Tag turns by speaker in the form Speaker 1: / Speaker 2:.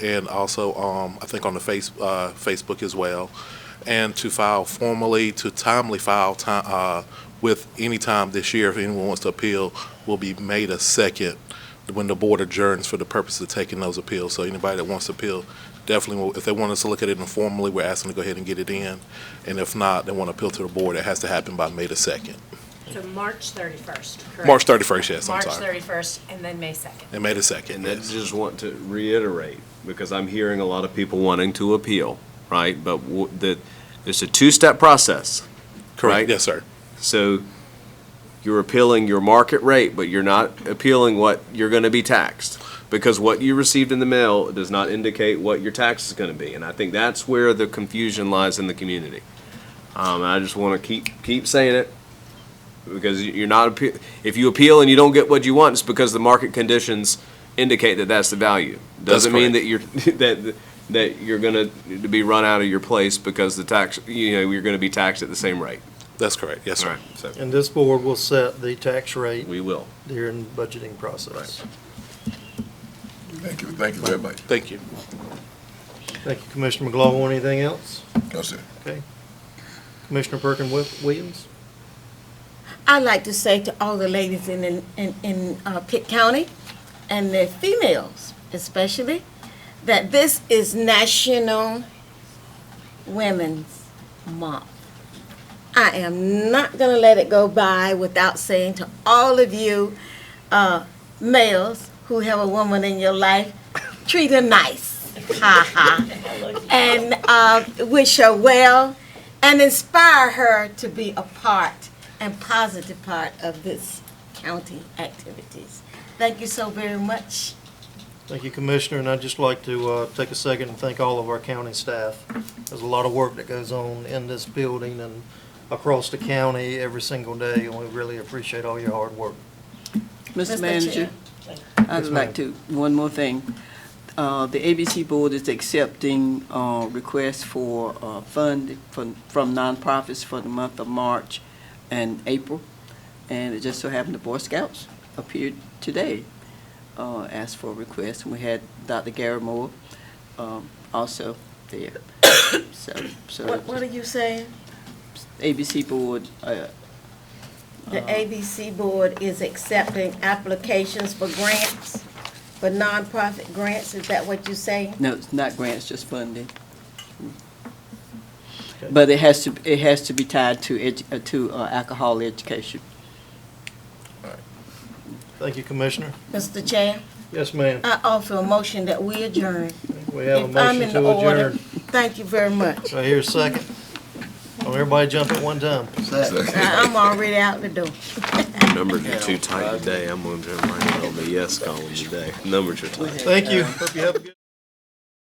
Speaker 1: and also, um, I think on the face, uh, Facebook as well. And to file formally, to timely file ti- uh, with any time this year, if anyone wants to appeal, will be made a second when the board adjourns for the purpose of taking those appeals. So anybody that wants to appeal, definitely, will- if they want us to look at it informally, we're asking to go ahead and get it in. And if not, they want to appeal to the board, it has to happen by May the second.
Speaker 2: So March 31st, correct?
Speaker 1: March thirty-first, yes, I'm
Speaker 2: March
Speaker 1: sorry.
Speaker 2: 31st, and then May 2nd.
Speaker 1: And May the second,
Speaker 3: And I
Speaker 1: yes.
Speaker 3: just want to reiterate, because I'm hearing a lot of people wanting to appeal, right? But w- the, it's a two-step process.
Speaker 1: Correct,
Speaker 3: right?
Speaker 1: yes, sir.
Speaker 3: So you're appealing your market rate, but you're not appealing what you're going to be taxed. Because what you received in the mail does not indicate what your tax is going to be. And I think that's where the confusion lies in the community. Um, and I just want to keep, keep saying it. Because you- you're not, appe- if you appeal and you don't get what you want, it's because the market conditions indicate that that's the value.
Speaker 1: That's
Speaker 3: Doesn't mean
Speaker 1: correct.
Speaker 3: that you're, that, that you're going to be run out of your place because the tax, you know, you're going to be taxed at the same rate.
Speaker 1: That's correct, yes, sir.
Speaker 3: so.
Speaker 4: And this board will set the tax rate
Speaker 3: We will.
Speaker 4: during budgeting process.
Speaker 5: Thank you, thank you very much.
Speaker 1: Thank you.
Speaker 4: Thank you, Commissioner McGlaughlin. Anything else?
Speaker 5: That's it.
Speaker 4: Okay. Commissioner Perkin Wi- Williams?
Speaker 6: I'd like to say to all the ladies in, in, in, in uh, Pitt County and the females especially that this is National Women's Month. I am not going to let it go by without saying to all of you uh, males who have a woman in your life, treat her nice. Ha ha. And uh, wish her well and inspire her to be a part and positive part of this county activities. Thank you so very much.
Speaker 4: Thank you, Commissioner, and I'd just like to uh, take a second and thank all of our county staff. There's a lot of work that goes on in this building and across the county every single day, and we really appreciate all your hard work.
Speaker 6: Mr.
Speaker 7: Mr. Manager, I'd like to, one more thing. Uh, The ABC Board is accepting uh, requests for uh, fund from from nonprofits for the month of March and April, and it just so happened the Boy Scouts appeared today, uh, asked for a request, and we had Dr. Gary Moore um, also there. So, so
Speaker 6: What, what are you saying?
Speaker 7: ABC Board uh,
Speaker 6: The
Speaker 4: Uh,
Speaker 6: ABC Board is accepting applications for grants, for nonprofit grants, is that what you say?
Speaker 7: No, it's not grants, just funding. But it has to, it has to be tied to edu, uh, to uh, alcohol education.
Speaker 4: Thank you, Commissioner.
Speaker 6: Mr. Chair,
Speaker 4: Yes, ma'am.
Speaker 6: I offer a motion that we adjourn.
Speaker 4: We have a
Speaker 6: If I'm
Speaker 4: motion
Speaker 6: in
Speaker 4: to
Speaker 6: order.
Speaker 4: adjourn.
Speaker 6: Thank you very much.
Speaker 4: Do I hear a second? Don't everybody jump at one time.
Speaker 6: I- I'm already out the door.
Speaker 3: Numbers are too tight today. I'm gonna turn mine on the yes column today. Numbers are tight.
Speaker 4: Thank you. Hope you have a good